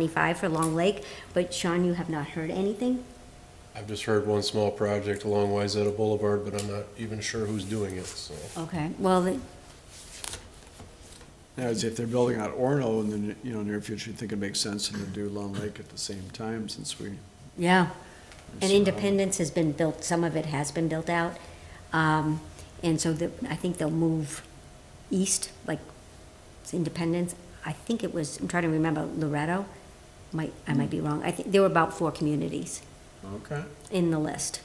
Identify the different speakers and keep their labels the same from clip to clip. Speaker 1: 25 for Long Lake, but Sean, you have not heard anything?
Speaker 2: I've just heard one small project along Wayzata Boulevard, but I'm not even sure who's doing it, so.
Speaker 1: Okay, well, the-
Speaker 3: Now, as if they're building out Orno in the, n- you know, near future, you think it makes sense to do Long Lake at the same time since we.
Speaker 1: yeah. And
Speaker 3: so-
Speaker 1: Independence has been built, some of it has been built out. Um, And so the- I think they'll move east, like it's Independence. I think it was, I'm trying to remember, Loretto? Might, I might be wrong. I think there were about four communities
Speaker 3: Okay.
Speaker 1: in the list.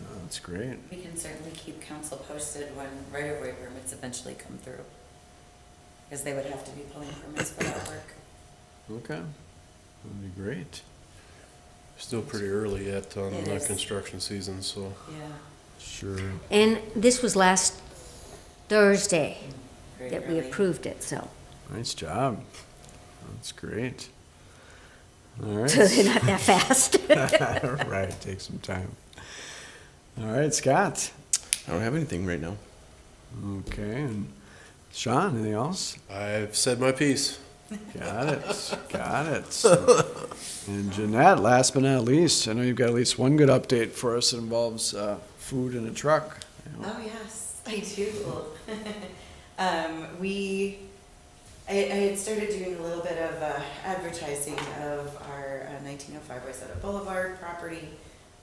Speaker 3: Oh, That's great.
Speaker 4: We can certainly keep council posted when right-of-way permits eventually come through. Because they would have to be pulling permits for that work.
Speaker 3: Okay. That'd be great.
Speaker 2: Still pretty early yet on
Speaker 4: It
Speaker 2: the
Speaker 4: is.
Speaker 2: construction season, so.
Speaker 4: Yeah.
Speaker 3: Sure.
Speaker 1: And this was last Thursday
Speaker 4: very
Speaker 1: that we
Speaker 4: early.
Speaker 1: approved it, so.
Speaker 3: Nice job. That's great. All right.
Speaker 1: So they're not that fast.
Speaker 3: Right, take some time. All right, Scott.
Speaker 5: I don't have anything right now.
Speaker 3: Okay, and Sean, anything else?
Speaker 2: I've said my piece.
Speaker 3: Got it, got it. And Jeanette, last but not least, I know you've got at least one good update for us that involves uh, food in a truck.
Speaker 4: Oh, yes, I do. um, we, I, I had started doing a little bit of uh, advertising of our uh, 1905 Wayzata Boulevard property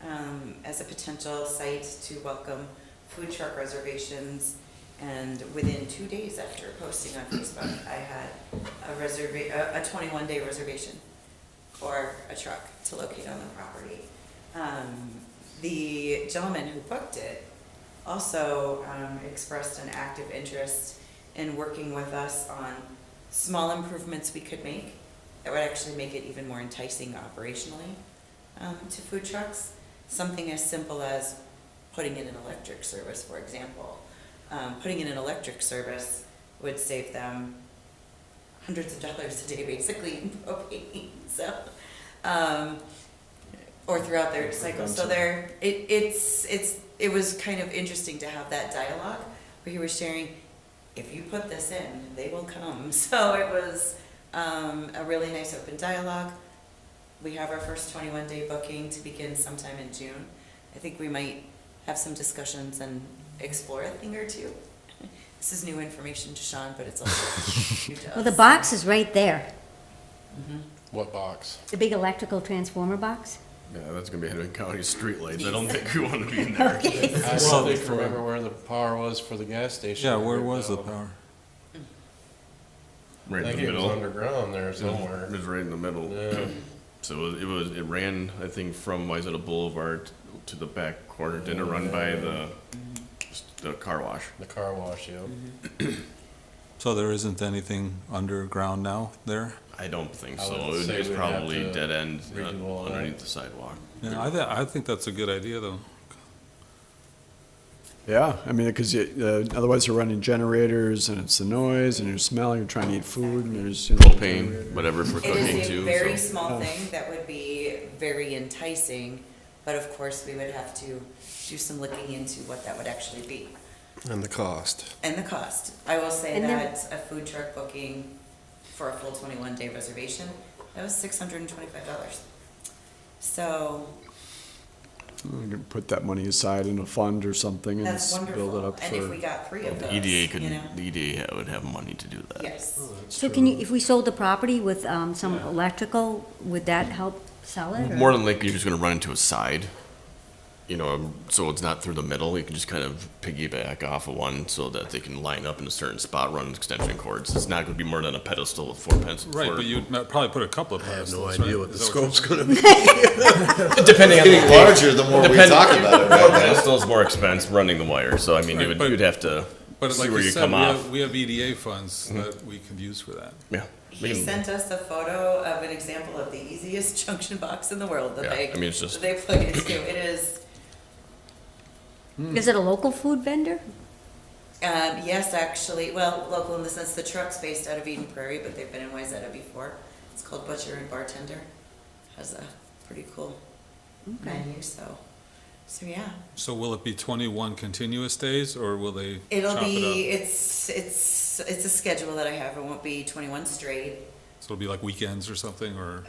Speaker 4: um, as a potential site to welcome food truck reservations. And within two days after posting on Facebook, I had a reserva, a- a 21 day reservation for a truck to locate on the property. Um, the gentleman who booked it also um, expressed an active interest in working with us on small improvements we could make that would actually make it even more enticing operationally um, to food trucks. Something as simple as putting in an electric service, for example. Um, putting in an electric service would save them hundreds of dollars a day, basically, in propane. So, um, or throughout their cycle. So there, it, it's, it's, it was kind of interesting to have that dialogue where he was sharing, if you put this in, they will come. So it was um, a really nice open dialogue. We have our first 21 day booking to begin sometime in June. I think we might have some discussions and explore a thing or two. This is new information to Sean, but it's also new to us.
Speaker 1: Well, Oh, the box is right there,
Speaker 2: What box?
Speaker 1: the big electrical transformer box.
Speaker 5: Yeah, that's gonna be Hennepin County streetlights. I don't think we want to be in there.
Speaker 2: I
Speaker 6: Well,
Speaker 2: still think remember where the power was for the gas station.
Speaker 6: Yeah, where was the power?
Speaker 2: I
Speaker 5: Right in
Speaker 2: think
Speaker 5: the
Speaker 2: it was
Speaker 5: middle.
Speaker 2: underground there
Speaker 5: It
Speaker 2: somewhere.
Speaker 5: was right in the middle.
Speaker 2: Yeah.
Speaker 5: So it was, it ran, I think, from Wayzata Boulevard to the back corner. Didn't it run by the, the car wash?
Speaker 2: The car wash, yeah.
Speaker 6: So there isn't anything underground now there?
Speaker 5: I don't think
Speaker 2: I
Speaker 5: so.
Speaker 2: would
Speaker 5: It
Speaker 2: say
Speaker 5: was
Speaker 2: we'd have
Speaker 5: probably
Speaker 2: to
Speaker 5: dead end uh,
Speaker 2: redo all that.
Speaker 5: underneath the sidewalk.
Speaker 6: Yeah, I, thi- I think that's a good idea though.
Speaker 3: Yeah, I mean, because otherwise you're running generators and it's the noise and you're smelling, you're trying to eat food and there's. you know,
Speaker 5: Propane,
Speaker 3: generator.
Speaker 5: whatever for
Speaker 4: It
Speaker 5: cooking
Speaker 4: is a
Speaker 5: too.
Speaker 4: very
Speaker 5: so-
Speaker 4: small thing that would be very enticing, but of course, we would have to do some looking into what that would actually be
Speaker 2: And the cost.
Speaker 4: and the cost. I will say
Speaker 1: And there-
Speaker 4: that a food truck booking for a full twenty-one day reservation, that was six hundred and twenty-five dollars. So
Speaker 3: We can Put that money aside in a fund or something and
Speaker 4: that's
Speaker 3: s- build it
Speaker 4: wonderful.
Speaker 3: up
Speaker 4: And if we
Speaker 3: for.
Speaker 4: got three of those,
Speaker 5: The EDA E could,
Speaker 4: you know,
Speaker 5: the EDA would have money to do that.
Speaker 4: yes.
Speaker 1: So can you, if we sold the property with um, some electrical, would that help sell it? or-
Speaker 5: More than likely, you're just gonna run into a side, you know, um, so it's not through the middle. You can just kind of piggyback off of one so that they can line up in a certain spot, run extension cords. It's not gonna be more than a pedestal of four pencils.
Speaker 6: Right, but you'd ma- probably put a couple of
Speaker 2: I have
Speaker 6: pedestals,
Speaker 2: no
Speaker 6: right?
Speaker 2: idea what the
Speaker 6: Is that you're-
Speaker 2: scope's gonna be.
Speaker 5: depending on
Speaker 7: getting larger the more we talk about it.
Speaker 5: More pedestals, more expense running the wire. So I mean,
Speaker 6: Right,
Speaker 5: you would,
Speaker 6: but-
Speaker 5: you'd have to
Speaker 6: But
Speaker 5: see
Speaker 6: like
Speaker 5: where
Speaker 6: you
Speaker 5: you
Speaker 6: said,
Speaker 5: come
Speaker 6: we have,
Speaker 5: off.
Speaker 6: we have EDA funds
Speaker 2: Hmm.
Speaker 6: that we could use for that.
Speaker 5: Yeah. We
Speaker 4: He
Speaker 5: can-
Speaker 4: sent us a photo of an example of the easiest junction box in the world that
Speaker 5: Yeah,
Speaker 4: they,
Speaker 5: I mean, it's
Speaker 4: that
Speaker 5: just-
Speaker 4: they plug into. It is,
Speaker 1: Is it a local food vendor?
Speaker 4: um, yes, actually, well, local in the sense the truck's based out of Eden Prairie, but they've been in Wayzata before. It's called Butcher and Bartender. Has a pretty cool menu, so, so yeah.
Speaker 6: So will it be twenty-one continuous days or will they
Speaker 4: It'll
Speaker 6: chop
Speaker 4: be,
Speaker 6: it
Speaker 4: it's, it's, it's a schedule that I have. It won't be twenty-one straight.
Speaker 6: So it'll be like weekends or something, or?